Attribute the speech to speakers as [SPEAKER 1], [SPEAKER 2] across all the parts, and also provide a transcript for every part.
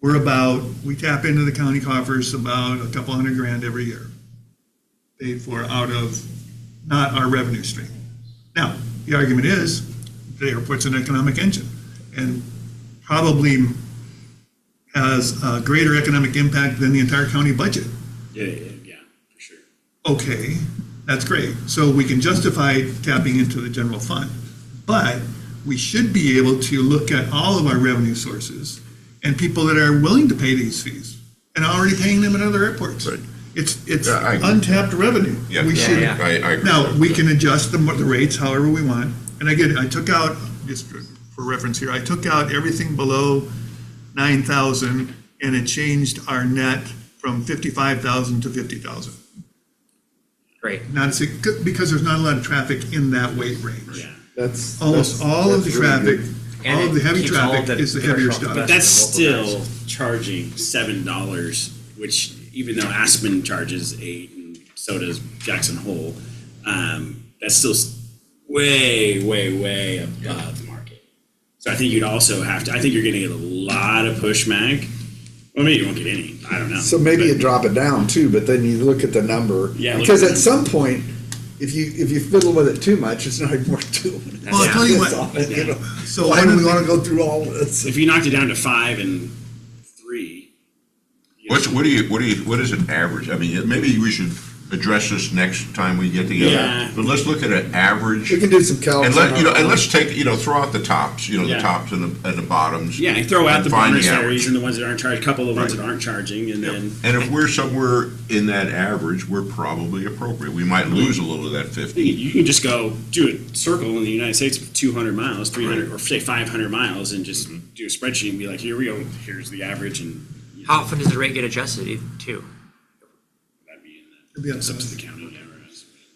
[SPEAKER 1] We're about, we tap into the county coffers about a couple hundred grand every year. Paid for out of not our revenue stream. Now, the argument is, the airport's an economic engine and probably has a greater economic impact than the entire county budget.
[SPEAKER 2] Yeah, yeah,
[SPEAKER 3] Mm-hmm.
[SPEAKER 2] yeah, for sure.
[SPEAKER 1] Okay, that's great. So we can justify tapping into the general fund. But we should be able to look at all of our revenue sources and people that are willing to pay these fees and already paying them at other airports.
[SPEAKER 3] Right.
[SPEAKER 1] It's, it's
[SPEAKER 3] Yeah, I agree.
[SPEAKER 1] untapped revenue.
[SPEAKER 3] Yeah,
[SPEAKER 1] We should,
[SPEAKER 3] I, I agree.
[SPEAKER 1] now, we can adjust the, the rates however we want. And again, I took out, just for reference here, I took out everything below nine thousand and it changed our net from fifty-five thousand to fifty thousand.
[SPEAKER 4] Great.
[SPEAKER 1] Not, a sig- because there's not a lot of traffic in that weight range.
[SPEAKER 2] Yeah.
[SPEAKER 5] That's.
[SPEAKER 1] Almost
[SPEAKER 5] that's-
[SPEAKER 1] all of the
[SPEAKER 5] that's really
[SPEAKER 1] traffic,
[SPEAKER 5] good.
[SPEAKER 4] And
[SPEAKER 1] all of
[SPEAKER 4] it
[SPEAKER 1] the heavy
[SPEAKER 4] keeps all
[SPEAKER 1] traffic
[SPEAKER 4] the
[SPEAKER 1] is the
[SPEAKER 4] bigger
[SPEAKER 1] heavier
[SPEAKER 4] trucks
[SPEAKER 1] stuff.
[SPEAKER 2] But
[SPEAKER 4] best.
[SPEAKER 2] that's
[SPEAKER 4] Local
[SPEAKER 2] still charging seven dollars, which even though Aspen charges eight and so does Jackson Hole, um, that's still s- way, way, way above the market. So I think you'd also have to. I think you're going to get a lot of pushback. Well, maybe you won't get any. I don't know.
[SPEAKER 5] So maybe you
[SPEAKER 2] But-
[SPEAKER 5] drop it down too, but then you look at the number.
[SPEAKER 2] Yeah, look
[SPEAKER 5] Because
[SPEAKER 2] at the
[SPEAKER 5] at some point, if you, if you fiddle with it too much, it's not even worth doing.
[SPEAKER 1] Well, I'll tell you what, so
[SPEAKER 5] So why
[SPEAKER 1] one of
[SPEAKER 5] do we
[SPEAKER 1] the-
[SPEAKER 5] wanna go through all this?
[SPEAKER 2] if you knocked it down to five and three, you know,
[SPEAKER 3] What's, what do you, what do you, what is an average? I mean, maybe we should address this next time we get
[SPEAKER 2] Yeah.
[SPEAKER 3] together. But let's look at an average.
[SPEAKER 5] We can do some calcs.
[SPEAKER 3] And let, you know,
[SPEAKER 5] on our
[SPEAKER 3] and
[SPEAKER 5] own.
[SPEAKER 3] let's take, you know, throw out the tops, you know,
[SPEAKER 2] Yeah.
[SPEAKER 3] the tops and the, and the bottoms.
[SPEAKER 2] Yeah, you throw out
[SPEAKER 3] and
[SPEAKER 2] the
[SPEAKER 3] find
[SPEAKER 2] bonus areas
[SPEAKER 3] average.
[SPEAKER 2] and the ones that aren't charged, a couple of the ones
[SPEAKER 3] Right.
[SPEAKER 2] that aren't charging, and then
[SPEAKER 3] And if we're somewhere in that average, we're probably appropriate. We might lose a little of that
[SPEAKER 2] you
[SPEAKER 3] fifty.
[SPEAKER 2] you can just go do a circle in the United States of 200 miles, 300, or say 500 miles, and just do a spreadsheet and be like, here we go, here's the average, and you
[SPEAKER 4] How
[SPEAKER 2] know,
[SPEAKER 4] often does the rate get adjusted e- too?
[SPEAKER 2] that'd be in
[SPEAKER 1] It'd be
[SPEAKER 2] the,
[SPEAKER 1] up to
[SPEAKER 2] it's up to
[SPEAKER 1] us.
[SPEAKER 2] the county. yeah, right.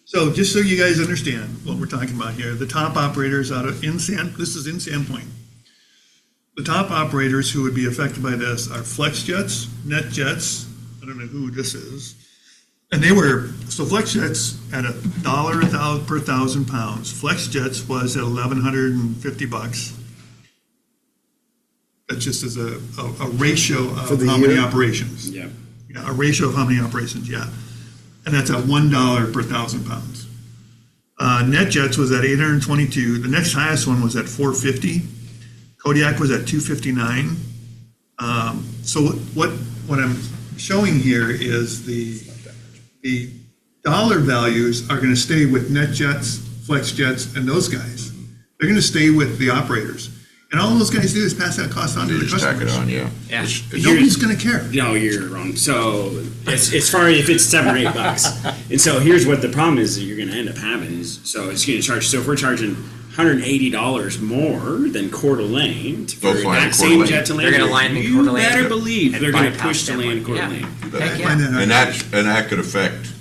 [SPEAKER 1] So just so you guys understand what we're talking about here, the top operators out of, in San, this is in Sandpoint. The top operators who would be affected by this are Flex Jets, Net Jets, I don't know who this is. And they were, so Flex Jets at a dollar a thou, per thousand pounds, Flex Jets was at eleven hundred and fifty bucks. That just is a, a, a ratio
[SPEAKER 5] For
[SPEAKER 1] of
[SPEAKER 5] the
[SPEAKER 1] how many
[SPEAKER 5] year?
[SPEAKER 1] operations.
[SPEAKER 2] Yeah.
[SPEAKER 1] Yeah, a ratio of how many operations, yeah. And that's at one dollar per thousand pounds. Uh, NetJets was at eight hundred and twenty-two, the next highest one was at four fifty, Kodiak was at two fifty-nine. Um, so what, what I'm showing here is the, the dollar values are gonna stay with NetJets, FlexJets, and those guys. They're gonna stay with the operators, and all those guys do is pass that cost on to
[SPEAKER 3] You
[SPEAKER 1] the
[SPEAKER 3] just tack it
[SPEAKER 1] customers.
[SPEAKER 3] on, yeah.
[SPEAKER 4] Yeah.
[SPEAKER 3] It's- it's-
[SPEAKER 1] Nobody's gonna care.
[SPEAKER 2] No, you're wrong. So as, as far as if it's seven or eight bucks, and so here's what the problem is that you're going to end up having is so it's going to charge. So if we're charging 180 dollars more than Coeur d'Alene to-
[SPEAKER 3] Go
[SPEAKER 2] for
[SPEAKER 3] fly
[SPEAKER 2] that
[SPEAKER 3] to Coeur
[SPEAKER 2] same
[SPEAKER 3] d'Alene.
[SPEAKER 2] jet to
[SPEAKER 4] They're
[SPEAKER 2] land,
[SPEAKER 4] gonna land in Coeur
[SPEAKER 2] you
[SPEAKER 4] d'Alene
[SPEAKER 2] better
[SPEAKER 4] and-
[SPEAKER 2] believe
[SPEAKER 4] and
[SPEAKER 2] they're going to
[SPEAKER 4] bypass
[SPEAKER 2] push to
[SPEAKER 4] that
[SPEAKER 2] land
[SPEAKER 4] one.
[SPEAKER 2] Coeur
[SPEAKER 4] Yeah.
[SPEAKER 2] d'Alene.
[SPEAKER 1] Find
[SPEAKER 4] Heck yeah.
[SPEAKER 1] that out.
[SPEAKER 3] And that's, and that could affect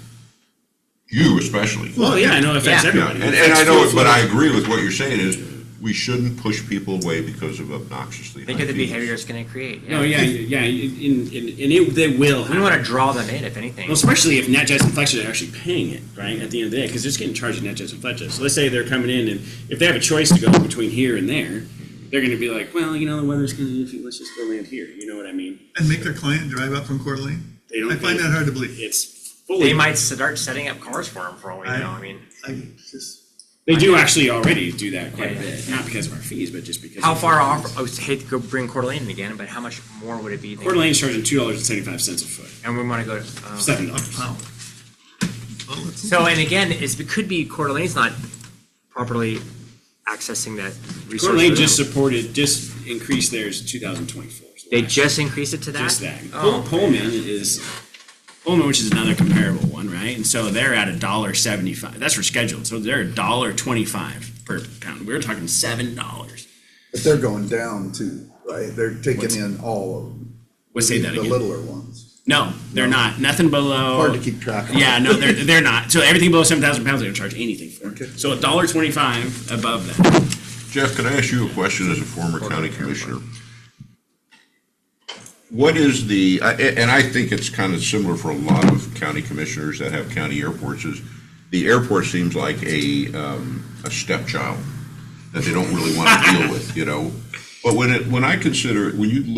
[SPEAKER 3] you especially.
[SPEAKER 2] Well, yeah, I know it affects
[SPEAKER 4] Yeah.
[SPEAKER 3] Yeah,
[SPEAKER 2] everybody.
[SPEAKER 3] and,
[SPEAKER 2] It
[SPEAKER 3] and I
[SPEAKER 2] affects
[SPEAKER 3] know,
[SPEAKER 2] fuel
[SPEAKER 3] but I
[SPEAKER 2] flow.
[SPEAKER 3] agree with what you're saying is, we shouldn't push people away because of obnoxiously
[SPEAKER 4] Think
[SPEAKER 3] high
[SPEAKER 4] of the
[SPEAKER 3] fees.
[SPEAKER 4] behavior it's going to create.
[SPEAKER 2] No, yeah, yeah, and, and, and it, they will.
[SPEAKER 4] We want
[SPEAKER 2] happen.
[SPEAKER 4] to draw them in, if anything.
[SPEAKER 2] Well, especially if NetJets and Fletcher are actually paying it, right, at the end of the day, because they're just getting charged at NetJets and Fletcher. So let's say they're coming in, and if they have a choice to go between here and there, they're going to be like, well, you know, the weather's going to be iffy, let's just go land here. You know what I mean?
[SPEAKER 1] And make their client drive up from Coeur d'Alene?
[SPEAKER 2] They don't
[SPEAKER 1] I find
[SPEAKER 2] pay-
[SPEAKER 1] that hard to believe.
[SPEAKER 2] It's fully.
[SPEAKER 4] They might start setting up cars for them for all we know.
[SPEAKER 1] I-
[SPEAKER 4] I mean,
[SPEAKER 1] I just,
[SPEAKER 2] They do actually already do that quite a
[SPEAKER 4] Yeah, yeah.
[SPEAKER 2] bit, not because of our fees, but just because.
[SPEAKER 4] how
[SPEAKER 2] of-
[SPEAKER 4] far off? I would hate to go bring Coeur d'Alene in again, but how much more would it be? than-
[SPEAKER 2] Coeur d'Alene's charging two dollars and seventy-five cents a foot,
[SPEAKER 4] And we want to go. To, um,
[SPEAKER 1] a
[SPEAKER 2] seven dollars.
[SPEAKER 1] pound. Well, let's-
[SPEAKER 4] So, and again, it's, it could be Coeur d'Alene's not properly accessing that resource.
[SPEAKER 2] Coeur d'Alene
[SPEAKER 4] for them.
[SPEAKER 2] just supported, just increased theirs two thousand twenty-four.
[SPEAKER 4] They just increased it to that?
[SPEAKER 2] Just that. Pol-
[SPEAKER 4] Oh,
[SPEAKER 2] Pullman is, Pullman, which is another comparable one, right? And so they're at a dollar seventy-five, that's for scheduled, so they're a dollar twenty-five per pound. We We're talking seven dollars.
[SPEAKER 5] But they're going down too, right? They're taking
[SPEAKER 2] What's-
[SPEAKER 5] in all of them.
[SPEAKER 2] Let's say that
[SPEAKER 5] The
[SPEAKER 2] again.
[SPEAKER 5] littler ones.
[SPEAKER 2] No, they're not, nothing below.
[SPEAKER 5] Hard to keep track of.
[SPEAKER 2] Yeah, no, they're, they're not. So everything below seven thousand pounds, they don't charge anything for.
[SPEAKER 5] Okay.
[SPEAKER 2] it. So a dollar twenty-five above that.
[SPEAKER 3] Jeff, can I ask you a question as a former county commissioner? What is the, I- a- and I think it's kind of similar for a lot of county commissioners that have county airports, is the airport seems like a, um, a stepchild that they don't really want to deal with, you know? But when it, when I consider, it, when you look